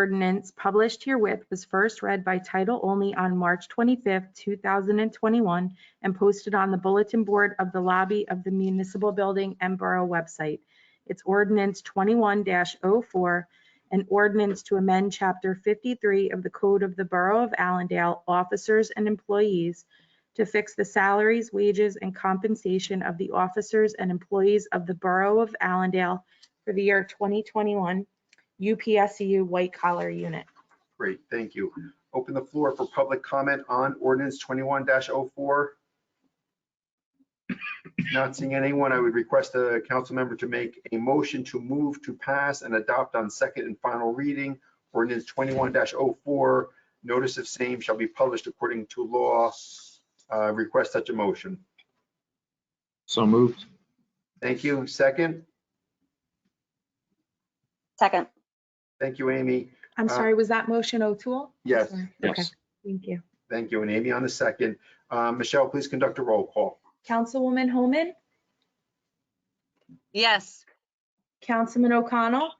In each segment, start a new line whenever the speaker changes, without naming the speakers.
ordinance published herewith was first read by title only on March 25th, 2021, and posted on the bulletin board of the lobby of the municipal building and borough website. It's ordinance 21-04, an ordinance to amend Chapter 53 of the Code of the Borough of Allendale, Officers and Employees, to fix the salaries, wages, and compensation of the officers and employees of the Borough of Allendale for the year 2021 UPSU White Collar Unit.
Great, thank you. Open the floor for public comment on ordinance twenty-one oh 4 Not seeing anyone, I would request the council member to make a motion to move to pass and adopt on second and final reading ordinance twenty-one 4 Notice of same shall be published according to law. Uh, Request such a motion.
So moved.
Thank you. Second,
Second,
thank you, Amy.
I'm
Uh,
sorry, was that motion O'Toole?
Yes,
Sorry. Okay,
Yes.
thank you.
thank you. And Amy on the second. Uh, Michelle, please conduct a roll call.
Councilwoman Homan,
Yes.
Councilman O'Connell?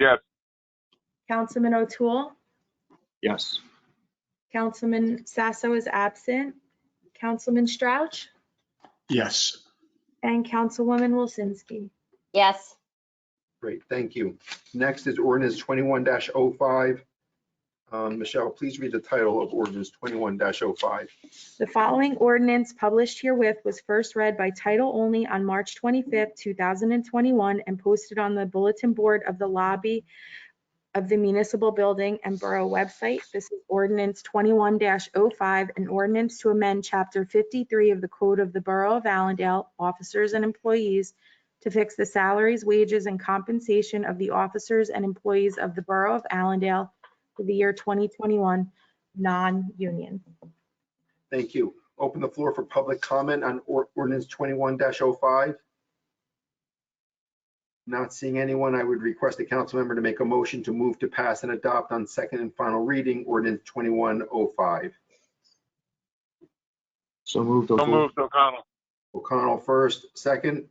Yes.
Councilman O'Toole?
Yes.
Councilman Sasso is absent. Councilman Strouch?
Yes.
And Councilwoman Wilsinski.
yes,
Great, thank you. Next is ordinance twenty-one 5 Um, Michelle, please read the title of ordinance twenty-one oh 5
The following ordinance published herewith was first read by title only on March 25th, 2021, and posted on the bulletin board of the lobby of the municipal building and borough website. This is ordinance 21-05, an ordinance to amend Chapter 53 of the Code of the Borough of Allendale, Officers and Employees, to fix the salaries, wages, and compensation of the officers and employees of the Borough of Allendale for the year 2021, non-union.
Thank you. Open the floor for public comment on or- ordinance twenty-one 5 Not seeing anyone, I would request the council member to make a motion to move to pass and adopt on second and final reading ordinance twenty-one oh five.
So moved.
So
O'Toole.
moved, O'Connell.
O'Connell first, second,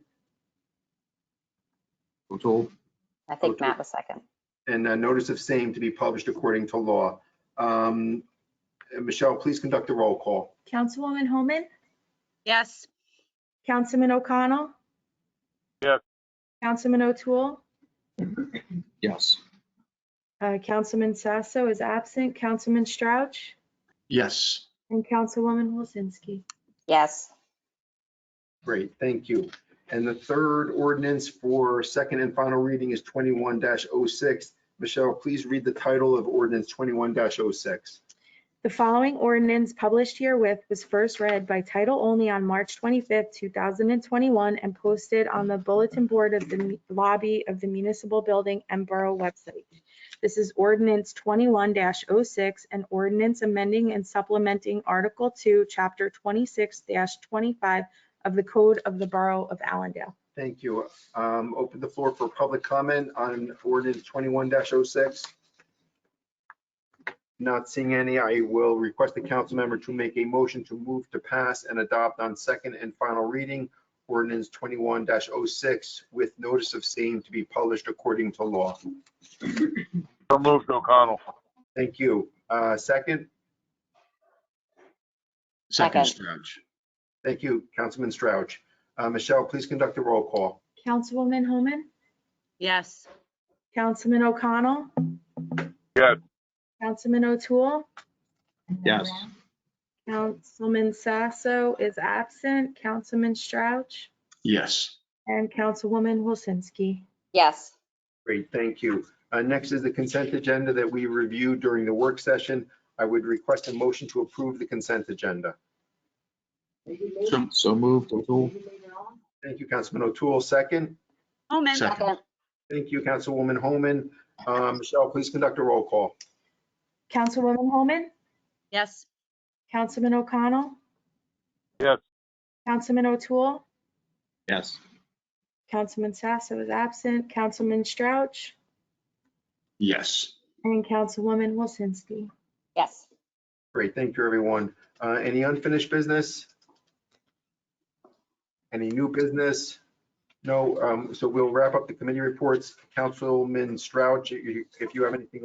O'Toole.
I think
Okay.
Matt was second.
and a notice of same to be published according to law. Um, Michelle, please conduct the roll call.
Councilwoman Homan,
Yes.
Councilman O'Connell.
Yes.
Councilman O'Toole,
Yes.
uh, Councilman Sasso is absent, Councilman Strouch,
Yes.
and Councilwoman Wilsinski.
Yes,
Great, thank you. And the third ordinance for second and final reading is twenty-one 6 Michelle, please read the title of ordinance twenty-one oh 6
The following ordinance published herewith was first read by title only on March 25th, 2021, and posted on the bulletin board of the mu- lobby of the municipal building and borough website. This is ordinance 21-06, an ordinance amending and supplementing Article 2, Chapter 26-25 of the Code of the Borough of Allendale.
Thank you. Um, open the floor for public comment on ordinance twenty-one 6 Not seeing any, I will request the council member to make a motion to move to pass and adopt on second and final reading ordinance twenty-one 6 with notice of same to be published according to law.
So moved, O'Connell.
Thank you. Uh, second?
second,
Stretch.
Thank you, Councilman Strouch. Uh, Michelle, please conduct a roll call.
Councilwoman Homan,
Yes.
Councilman O'Connell.
Yes.
Councilman O'Toole.
Yes.
Councilman Sasso is absent, Councilman Strouch,
Yes.
and Councilwoman Wilsinski.
yes,
Great, thank you. Uh, Next is the consent agenda that we reviewed during the work session. I would request a motion to approve the consent agenda.
So- So moved. O'Toole.
Thank you, Councilman O'Toole. Second,
Homan.
Second.
second,
thank you, Councilwoman Homan. Uh, Michelle, please conduct a roll call.
Councilwoman Holman,
Yes.
Councilman O'Connell.
Yes.
Councilman O'Toole,
Yes.
Councilman Sasso is absent, Councilman Strouch,
Yes.
and Councilwoman Wilsinski.
yes.
Great, thank you, everyone. Uh, Any unfinished business? Any new business? No, um, so we'll wrap up the committee reports. Councilman Strouch, i- i- if you have anything